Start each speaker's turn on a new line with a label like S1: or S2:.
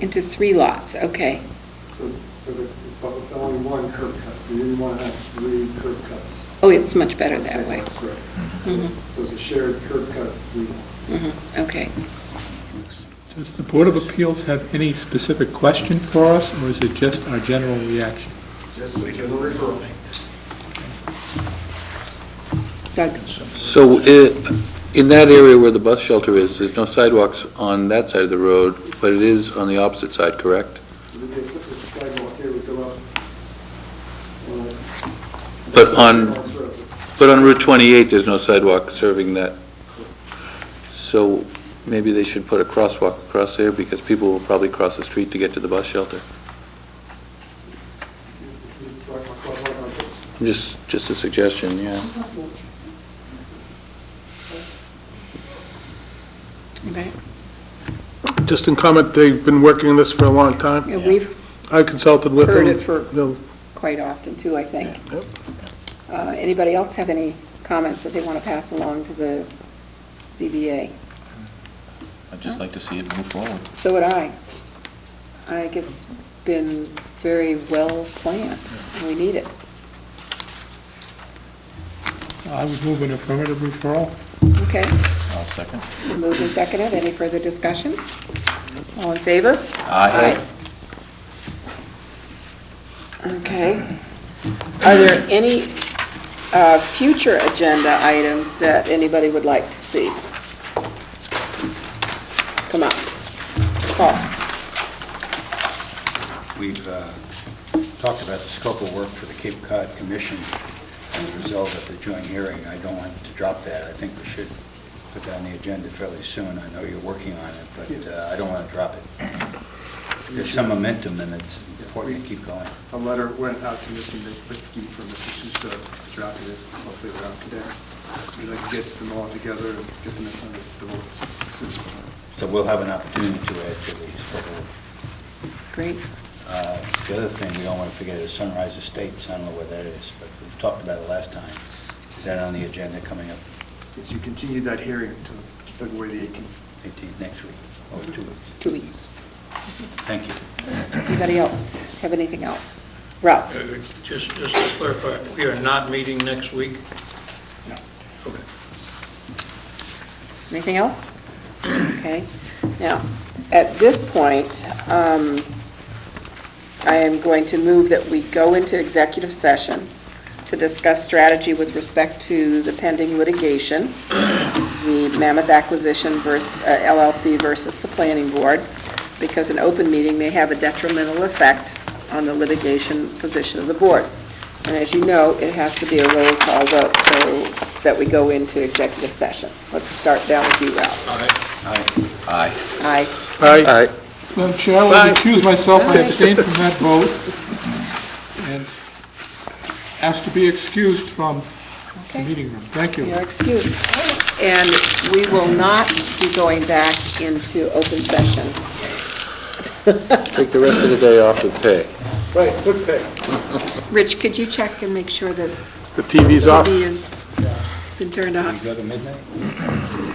S1: Into three lots, okay.
S2: So, but if- but with only one curb cut, we didn't want to have three curb cuts.
S1: Oh, it's much better
S2: on
S1: that
S2: same
S1: way.
S2: lots, right.
S1: Mhm.
S3: Mm-hmm.
S2: So it's a shared curb cut, three lots.
S1: Mhm, Okay.
S4: Does the Board of Appeals have any specific question for us, or is it just our general reaction?
S2: Just a general referral.
S1: Doug,
S5: So i- in that area where the bus shelter is, there's no sidewalks on that side of the road, but it is on the opposite side, correct?
S2: There'd be a si- a sidewalk here, would go up. uh,
S5: But on-
S2: sidewalks, right.
S5: But on Route 28, there's no sidewalk serving that. So maybe they should put a crosswalk across there because people will probably cross the street to get to the bus shelter.
S2: You- you drive across like on this.
S5: Just, just a suggestion, yeah.
S1: okay.
S3: Just in comment, they've been working on this for a long time.
S1: Yeah, We've
S3: I consulted with them.
S1: Heard it for-
S3: They'll-
S1: quite often too, I think.
S3: Yep.
S1: Uh, Anybody else have any comments that they want to pass along to the ZBA?
S6: I'd just like to see it move forward.
S1: So would I. I think it's been very well planned, and we need it.
S4: I would move an affirmative referral.
S1: Okay,
S6: I'll second.
S1: moved and seconded, any further discussion? All in favor? Aye. Okay. Are there any uh, future agenda items that anybody would like to see? Come on. Paul?
S7: We've uh, talked about the scope of work for the Cape Cod Commission as a result of the joint hearing. I don't want to drop that. I think we should put that on the agenda fairly soon. I know you're working on it, but uh, I don't want to drop it. There's some momentum, and it's important to keep going.
S2: A letter went out to Mr. Lipinski from Mr. Suso, drafted it, hopefully around today. We'd like to get them all together and get them in front of the board as soon as possible.
S7: So we'll have an opportunity to add to the scope of work.
S1: Great.
S7: Uh, The other thing we don't want to forget is Sunrise Estates. I don't know where that is, but we've talked about it last time. Is that on the agenda coming up
S2: If you continue that hearing to February the 18th.
S7: 18th next week, or two weeks?
S1: Two weeks.
S7: Thank you.
S1: Anybody else have anything else? Ralph?
S8: Uh, Just, just to clarify, we are not meeting next week? No. Okay.
S1: Anything else? Okay. Now, at this point, um, I am going to move that we go into executive session to discuss strategy with respect to the pending litigation, the Mammoth Acquisition versus uh, LLC versus the Planning Board, because an open meeting may have a detrimental effect on the litigation position of the board. And as you know, it has to be a roll call vote, so that we go into executive session. Let's start down with you, Ralph.
S8: All right.
S6: Aye.
S1: Aye.
S3: Aye.
S5: All right.
S4: Madam Chair, I will recuse myself, I abstain from that vote, and ask to be excused from the
S1: Okay.
S4: meeting room. Thank you.
S1: You're excused. And we will not be going back into open session.
S5: Take the rest of the day off with pay.
S3: Right, good pick.
S1: Rich, could you check and make sure that
S3: The TV's off.
S1: TV has been turned off?
S7: You go to midnight?